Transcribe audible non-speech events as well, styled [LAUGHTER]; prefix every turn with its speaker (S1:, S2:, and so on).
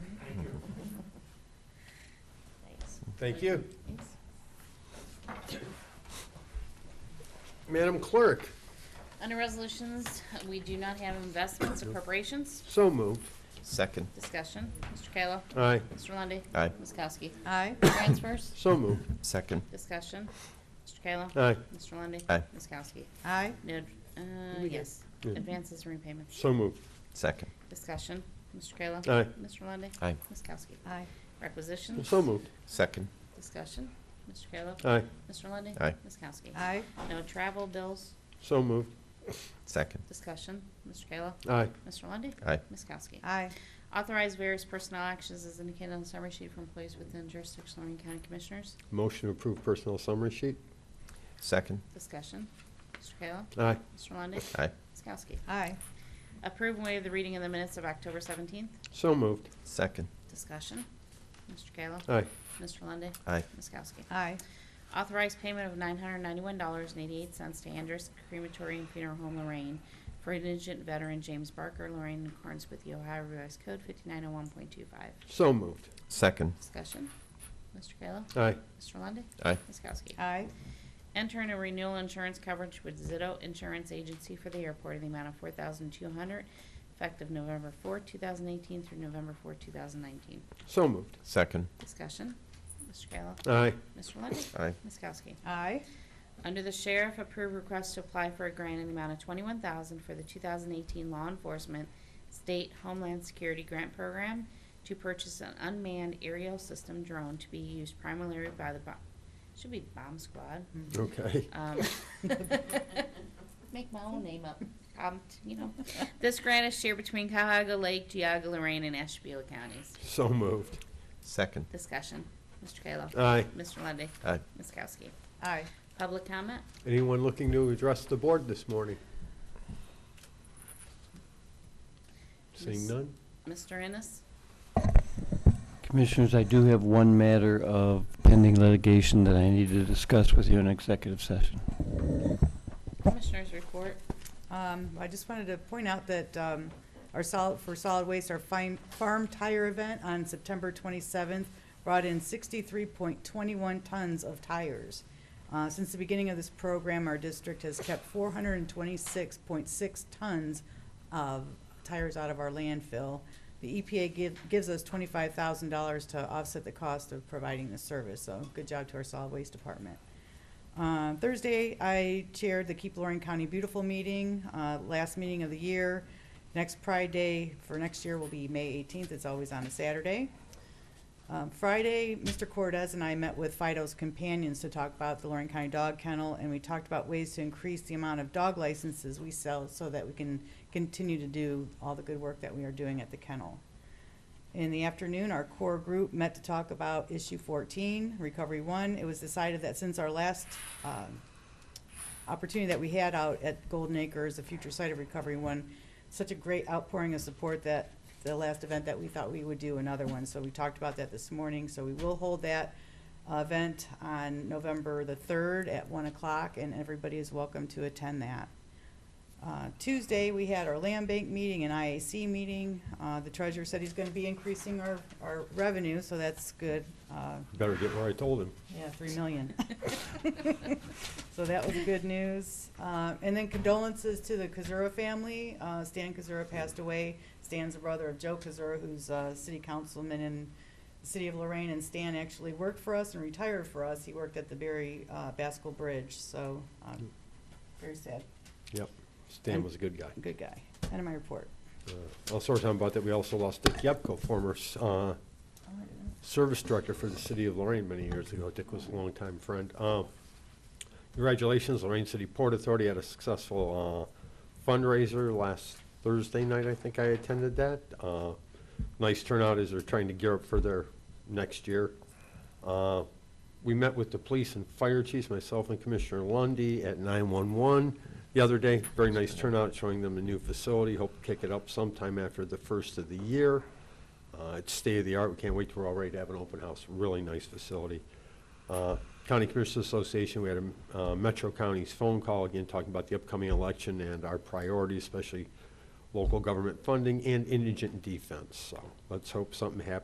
S1: Thank you. Madam Clerk,
S2: Under resolutions, we do not have investments appropriations.
S1: so move.
S3: Second.
S2: Discussion. Mr. Kayla.
S1: Aye,
S2: Mr. Lundy,
S3: Aye.
S2: Ms. Kowski.
S4: Aye.
S2: Transfers.
S1: so move.
S3: Second.
S2: Discussion. Mr. Kayla.
S1: Aye,
S2: Mr. Lundy,
S3: Aye.
S2: Ms. Kowski.
S4: Aye.
S2: No, uh,
S4: We did.
S2: yes.
S1: Yeah.
S2: Advances and repayments.
S1: so move.
S3: Second.
S2: Discussion. Mr. Kayla.
S1: Aye.
S2: Mr. Lundy,
S3: Aye.
S2: Ms. Kowski.
S4: Aye.
S2: Requisitions.
S1: So moved.
S3: Second.
S2: Discussion. Mr. Kayla.
S1: Aye,
S2: Mr. Lundy,
S3: Aye.
S2: Ms. Kowski.
S4: Aye.
S2: No travel bills.
S1: so moved.
S3: Second.
S2: Discussion. Mr. Kayla.
S1: Aye,
S2: Mr. Lundy,
S3: Aye.
S2: Ms. Kowski.
S4: Aye.
S2: Authorize various personnel actions as indicated on the summary sheet for employees within jurisdiction of Lorraine County Commissioners.
S1: motion to approve personnel summary sheet.
S3: Second.
S2: Discussion. Mr. Kayla.
S1: Aye,
S2: Mr. Lundey.
S3: Aye.
S2: Ms. Kowski.
S4: Aye.
S2: Approve and waive the reading of the minutes of October 17th.
S1: so moved.
S3: Second.
S2: Discussion. Mr. Kayla.
S1: Aye,
S2: Mr. Lundey.
S3: Aye.
S2: Ms. Kowski.
S4: Aye.
S2: Authorize payment of $991.88 to Andrus Crematory and Funeral Home Lorraine for indigent veteran James Barker, Lorraine, in accordance with the Ohio Revised Code 5901.25.
S1: so moved.
S3: Second.
S2: Discussion. Mr. Kayla.
S1: Aye,
S2: Mr. Lundey.
S3: Aye.
S2: Ms. Kowski.
S4: Aye.
S2: Enter in a renewal insurance coverage with Zito Insurance Agency for the airport in the amount of four thousand two hundred, effective November four, two thousand eighteen through November four, two thousand nineteen.
S1: so moved.
S3: Second.
S2: Discussion, Mr. Kayla.
S1: Aye,
S2: Mr. Lundey.
S3: Aye.
S2: Ms. Kowski.
S4: Aye.
S2: Under the sheriff, approve request to apply for a grant in the amount of twenty-one thousand for the two thousand eighteen law enforcement state homeland security grant program to purchase an unmanned aerial system drone to be used primarily by the bomb, should be bomb squad.
S1: [LAUGHS] okay.
S2: Um, [LAUGHS] Make my own name up, um, you know. This grant is shared between Cahoga Lake, Geauga, Lorraine, and Ashtabula counties.
S1: So moved.
S3: Second.
S2: Discussion, Mr. Kayla.
S1: Aye,
S2: Mr. Lundy,
S3: Aye.
S2: Ms. Kowski.
S4: Aye.
S2: Public comment?
S1: anyone looking to address the board this morning? Seeing none?
S2: Mr. Ennis?
S5: Commissioners, I do have one matter of pending litigation that I need to discuss with you in executive session.
S2: Commissioners report.
S4: Um, I just wanted to point out that, um, our solid, for solid waste, our fine, farm tire event on September twenty-seventh brought in sixty-three point twenty-one tons of tires. Uh, since the beginning of this program, our district has kept four hundred and twenty-six point six tons of tires out of our landfill. The EPA give, gives us twenty-five thousand dollars to offset the cost of providing the service, so good job to our solid waste department. Uh, Thursday, I chaired the Keep Lorraine County Beautiful meeting, uh, last meeting of the year. Next Pride Day for next year will be May 18th. It's always on a Saturday. Um, Friday, Mr. Cortez and I met with Fido's companions to talk about the Lorraine County Dog Kennel, and we talked about ways to increase the amount of dog licenses we sell so that we can continue to do all the good work that we are doing at the kennel. In the afternoon, our core group met to talk about issue 14, Recovery One. It was decided that since our last um, opportunity that we had out at Golden Acres, the future site of Recovery One, such a great outpouring of support that the last event that we thought we would do another one. So we talked about that this morning. So we will hold that uh, event on November the 3rd at 1 o'clock, and everybody is welcome to attend that. Uh, Tuesday, we had our land bank meeting and IAC meeting. Uh, The treasurer said he's going to be increasing our, our revenue, so that's good. Uh,
S1: Better get where I told him.
S4: Yeah, 3 million. So that was good news. Uh, And then condolences to the Kazura family. Uh, Stan Kazura passed away. Stan's the brother of Joe Kazura, who's a city councilman in the city of Lorraine. And Stan actually worked for us and retired for us. He worked at the Berry uh, Baskel Bridge, so um, very sad.
S1: Yep, Stan was a good guy.
S4: Good guy. End of my report.
S1: Uh, Also, talking about that, we also lost Dick Yepko, former uh, service director for the city of Lorraine many years ago. Dick was a longtime friend. Uh, Congratulations, Lorraine City Port Authority had a successful uh, fundraiser last Thursday night, I think I attended that. Uh, Nice turnout as they're trying to gear up for their next year. Uh, We met with the police and fire chiefs, myself and Commissioner Lundy at 911 the other day. Very nice turnout, showing them the new facility. Hope to kick it up sometime after the first of the year. Uh, It's state-of-the-art. We can't wait till we're all ready to have an open house. Really nice facility. Uh, County Commissioners Association, we had a uh, Metro County's phone call, again, talking about the upcoming election and our priorities, especially local government funding and indigent defense. So let's hope something happens